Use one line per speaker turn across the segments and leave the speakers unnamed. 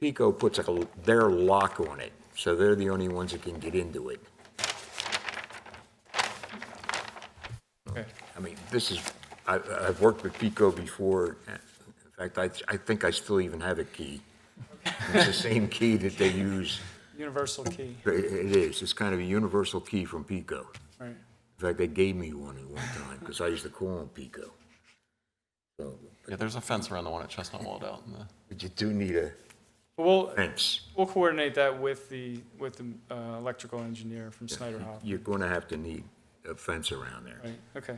Pico puts like a, their lock on it, so they're the only ones that can get into it.
Okay.
I mean, this is, I, I've worked with Pico before. In fact, I, I think I still even have a key. It's the same key that they use.
Universal key,
It it is. It's kind of a universal key from Pico.
right?
In fact, they gave me one at one time because I used to call him Pico. So,
Yeah, there's a fence around the one at Chestnut Walled out in the.
but you do need a
But We'll,
fence.
we'll coordinate that with the, with the uh, electrical engineer from Snyder Hall,
You're going to have to need a fence around there.
right? Okay.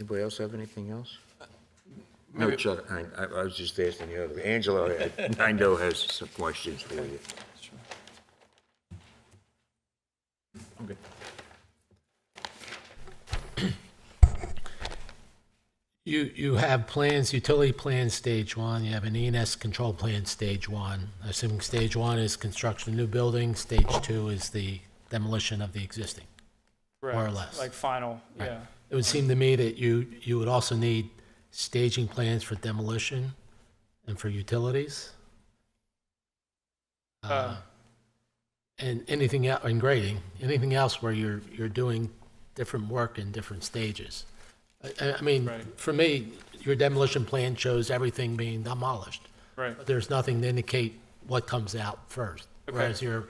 Anybody else have anything else? No,
Maybe-
Chuck, I, I I was just asking the other. Angelo, I- I know has some questions for you.
Sure.
You, you have plans, utility plan stage one, you have an ENS control plan stage one. Assuming stage one is construction of new building, stage two is the demolition of the existing. or
Correct.
less.
Like final, yeah.
It would seem to me that you, you would also need staging plans for demolition and for utilities.
Uh,
And anything out, and grading, anything else where you're, you're doing different work in different stages. I- I, I mean,
Right.
for me, your demolition plan shows everything being demolished.
Right,
But there's nothing to indicate what comes out first.
Okay.
Whereas your,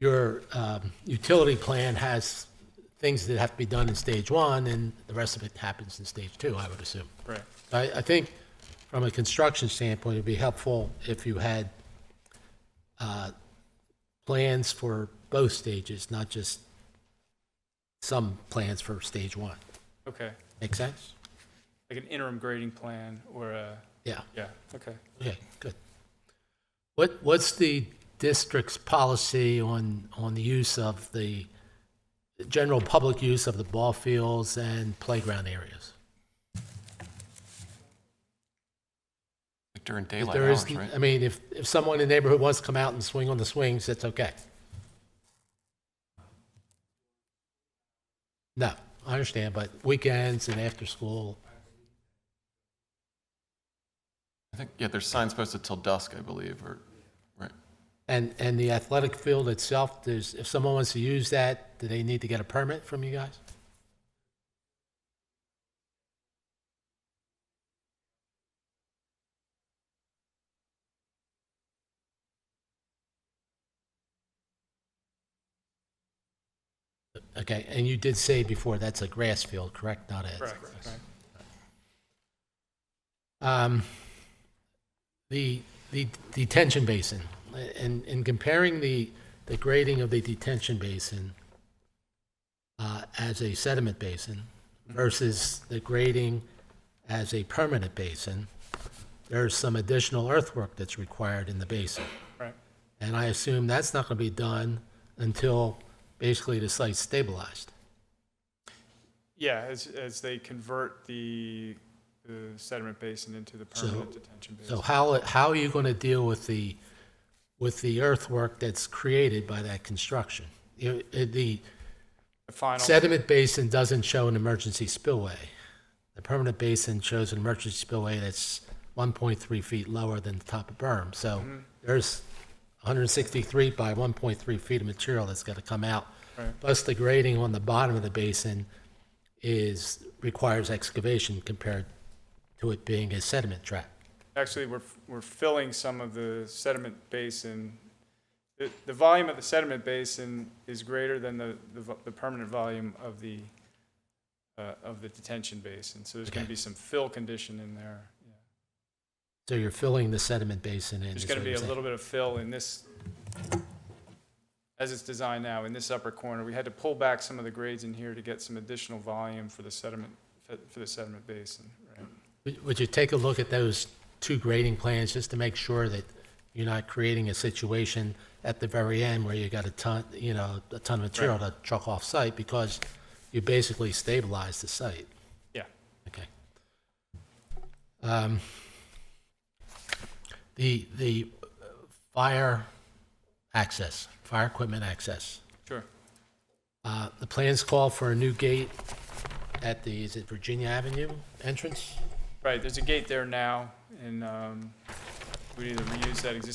your um, utility plan has things that have to be done in stage one, and the rest of it happens in stage two, I would assume.
right.
I, I think from a construction standpoint, it'd be helpful if you had uh, plans for both stages, not just some plans for stage one.
Okay.
Make sense?
Like an interim grading plan or a,
Yeah.
yeah, okay.
Okay, good. What, what's the district's policy on, on the use of the the general public use of the ball fields and playground areas?
Like during daylight
There is,
hours, right?
I mean, if, if someone in the neighborhood wants to come out and swing on the swings, that's okay. No, I understand, but weekends and after school,
I think, yeah, there's signs posted till dusk, I believe, or, right?
and, and the athletic field itself, there's, if someone wants to use that, do they need to get a permit from you guys? Okay, and you did say before, that's a grass field, correct? Not a.
Correct, right.
Um, The, the detention basin, and, and comparing the, the grading of the detention basin uh, as a sediment basin versus the grading as a permanent basin, there's some additional earthwork that's required in the basin.
Right,
And I assume that's not going to be done until basically the site's stabilized.
yeah, as, as they convert the the sediment basin into the
So-
permanent detention
So
basin.
how, how are you going to deal with the, with the earthwork that's created by that construction? You know, The
The final,
sediment basin doesn't show an emergency spillway. The permanent basin shows an emergency spillway that's 1.3 feet lower than the top of berm. So there's 163 by 1.3 feet of material that's got to come out.
Right.
Plus the grading on the bottom of the basin is, requires excavation compared to it being a sediment trap.
actually, we're, we're filling some of the sediment basin. The, the volume of the sediment basin is greater than the, the vo- the permanent volume of the, uh, of the detention basin. So there's going to
Okay.
be some fill condition in there. yeah.
So you're filling the sediment basin in.
There's
is
going to
what
be
you're
a
saying.
little bit of fill in this, as it's designed now, in this upper corner. We had to pull back some of the grades in here to get some additional volume for the sediment, for- for the sediment basin. right?
Would- Would you take a look at those two grading plans just to make sure that you're not creating a situation at the very end where you got a ton, you know, a ton of material to truck off site because you basically stabilize the site?
Yeah,
Okay. Um, The, the uh, fire access, fire equipment access.
sure.
Uh, The plans call for a new gate at the, is it Virginia Avenue entrance?
Right, there's a gate there now, and um, we'd either reuse that existing